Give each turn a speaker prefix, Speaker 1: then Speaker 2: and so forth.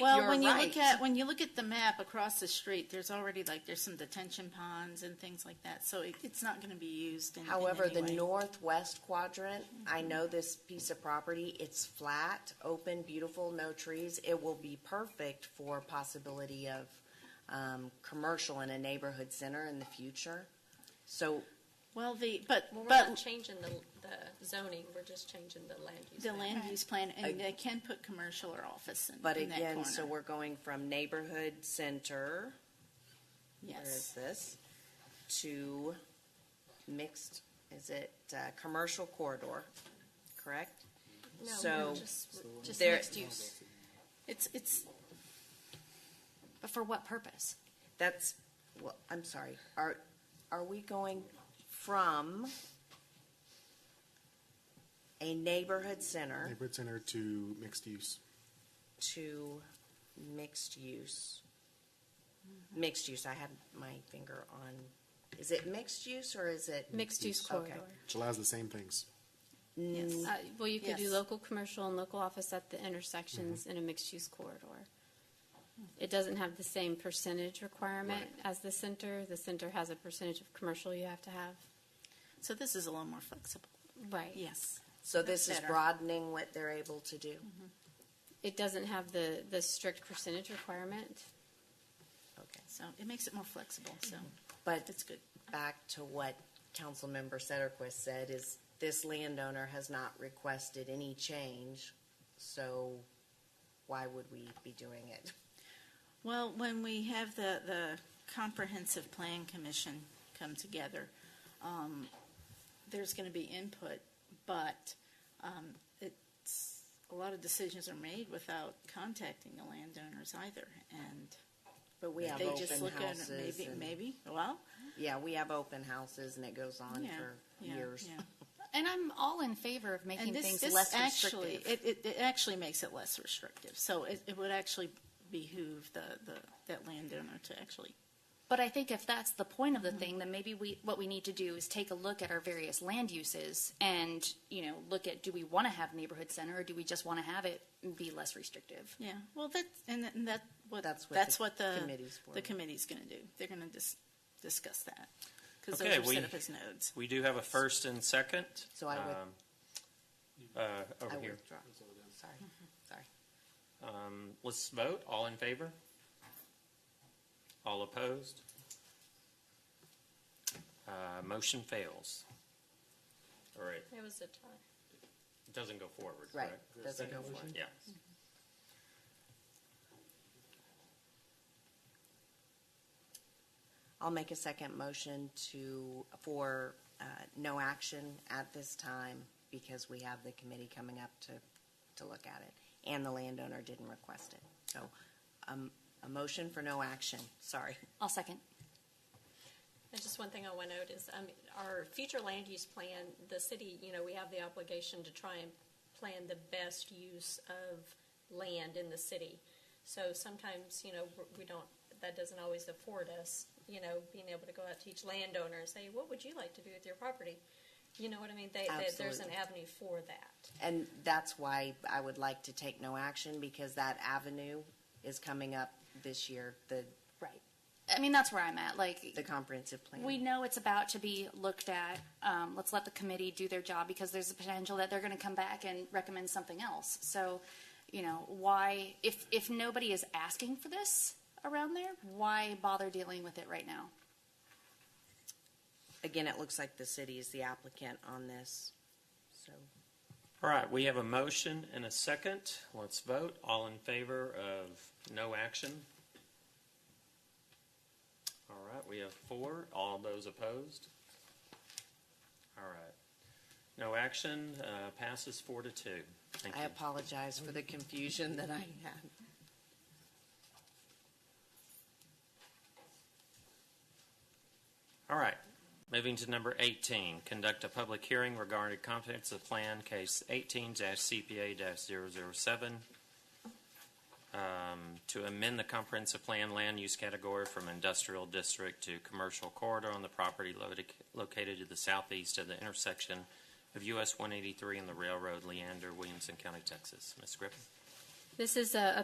Speaker 1: Well,
Speaker 2: You're
Speaker 1: when you
Speaker 2: right.
Speaker 1: look at, when you look at the map across the street, there's already like, there's some detention ponds and things like that, so it, it's not gonna be used in, in
Speaker 2: However,
Speaker 1: any
Speaker 2: the
Speaker 1: way.
Speaker 2: northwest quadrant, I
Speaker 1: Mm-hmm.
Speaker 2: know this piece of property, it's flat, open, beautiful, no trees. It will be perfect for possibility of, um, commercial in a neighborhood center in the future. So,
Speaker 1: Well, the, but,
Speaker 3: Well, we're not
Speaker 1: but
Speaker 3: changing the, the zoning, we're just changing the land use.
Speaker 1: the
Speaker 3: map.
Speaker 1: land use plan,
Speaker 2: Ag-
Speaker 1: and they can put commercial or office in,
Speaker 2: but
Speaker 1: in that corner.
Speaker 2: again, so we're going from neighborhood center, where is
Speaker 1: Yes,
Speaker 2: this? To mixed, is it, uh, commercial corridor, correct?
Speaker 3: No,
Speaker 2: So-
Speaker 3: we're just,
Speaker 4: Just
Speaker 2: There-
Speaker 4: mixed use.
Speaker 1: it's, it's,
Speaker 4: But for what purpose?
Speaker 2: That's, well, I'm sorry, are, are we going from a neighborhood center
Speaker 5: Neighborhood center to mixed use.
Speaker 2: to mixed use? Mixed use, I had my finger on, is it mixed use or is it?
Speaker 6: Mixed use
Speaker 2: Okay.
Speaker 6: corridor.
Speaker 5: which allows the same things.
Speaker 1: yes.
Speaker 6: Uh, well, you could do
Speaker 1: Yes.
Speaker 6: local commercial and local office at the intersections in a mixed use corridor. It doesn't have the same percentage requirement as the center. The center has a percentage of commercial you have to have.
Speaker 1: So this is a little more flexible.
Speaker 6: Right.
Speaker 1: Yes.
Speaker 2: So this
Speaker 1: That's
Speaker 2: is
Speaker 1: better.
Speaker 2: broadening what they're able to do?
Speaker 6: It doesn't have the, the strict percentage requirement.
Speaker 2: Okay.
Speaker 1: So it makes it more flexible, so
Speaker 2: But
Speaker 1: it's good.
Speaker 2: back to what Councilmember Sederquist said, is this landowner has not requested any change, so why would we be doing it?
Speaker 1: Well, when we have the, the comprehensive plan commission come together, um, there's gonna be input, but, um, it's, a lot of decisions are made without contacting the landowners either, and
Speaker 2: But we have
Speaker 1: they just
Speaker 2: open
Speaker 1: look at it,
Speaker 2: houses
Speaker 1: maybe,
Speaker 2: and,
Speaker 1: maybe, well,
Speaker 2: yeah, we have open houses and it goes on
Speaker 1: yeah,
Speaker 2: for
Speaker 1: yeah,
Speaker 2: years.
Speaker 1: yeah.
Speaker 4: And I'm all in favor of making
Speaker 1: And this,
Speaker 4: things
Speaker 1: this
Speaker 4: less
Speaker 1: actually,
Speaker 4: restrictive.
Speaker 1: it, it, it actually makes it less restrictive, so it, it would actually behoove the, the, that landowner to actually
Speaker 4: But I think if that's the point
Speaker 1: Mm-hmm.
Speaker 4: of the thing, then maybe we, what we need to do is take a look at our various land uses and, you know, look at, do we want to have neighborhood center or do we just want to have it be less restrictive?
Speaker 1: Yeah, well, that's, and that- and that, what,
Speaker 2: That's what
Speaker 1: that's
Speaker 2: the
Speaker 1: what the,
Speaker 2: committee's for.
Speaker 1: the committee's gonna do. They're gonna dis- discuss that. Cause those
Speaker 7: Okay,
Speaker 1: are
Speaker 7: we-
Speaker 1: set up as nodes.
Speaker 7: We do have a first and second.
Speaker 2: So I would-
Speaker 7: um, uh,
Speaker 2: I
Speaker 7: Over here.
Speaker 2: withdraw. Sorry,
Speaker 1: Mm-hmm.
Speaker 2: sorry.
Speaker 7: Um, Let's vote. All in favor? All opposed? Uh, Motion fails. All right,
Speaker 3: it was a tie.
Speaker 7: it doesn't go forward,
Speaker 2: Right,
Speaker 7: correct?
Speaker 2: doesn't go for it.
Speaker 7: Yeah.
Speaker 2: I'll make a second motion to, for uh, no action at this time because we have the committee coming up to, to look at it. And the landowner didn't request it. So um, a motion for no action, sorry.
Speaker 4: I'll second.
Speaker 3: And just one thing I want to note is, um, our future land use plan, the city, you know, we have the obligation to try and plan the best use of land in the city. So sometimes, you know, we're- we don't, that doesn't always afford us, you know, being able to go out to each landowner and say, what would you like to do with your property? You know what I mean? They, that there's an
Speaker 2: Absolutely.
Speaker 3: avenue for that.
Speaker 2: And that's why I would like to take no action because that avenue is coming up this year, the,
Speaker 4: Right. I mean, that's where I'm at. Like,
Speaker 2: the comprehensive plan.
Speaker 4: We know it's about to be looked at. Um, let's let the committee do their job because there's a potential that they're going to come back and recommend something else. So, you know, why, if, if nobody is asking for this around there, why bother dealing with it right now?
Speaker 2: Again, it looks like the city is the applicant on this, so.
Speaker 7: All right, we have a motion and a second. Let's vote. All in favor of no action? All right, we have four. All those opposed? All right. No action, uh, passes four to two. Thank
Speaker 2: I
Speaker 7: you.
Speaker 2: apologize for the confusion that I had.
Speaker 7: All right, moving to number 18, conduct a public hearing regarding comprehensive plan case 18-CPA-007 um, to amend the comprehensive plan land use category from industrial district to commercial corridor on the property located- located to the southeast of the intersection of US 183 and the railroad Leander, Williamson County, Texas. Ms. Griffin?
Speaker 6: This is a, a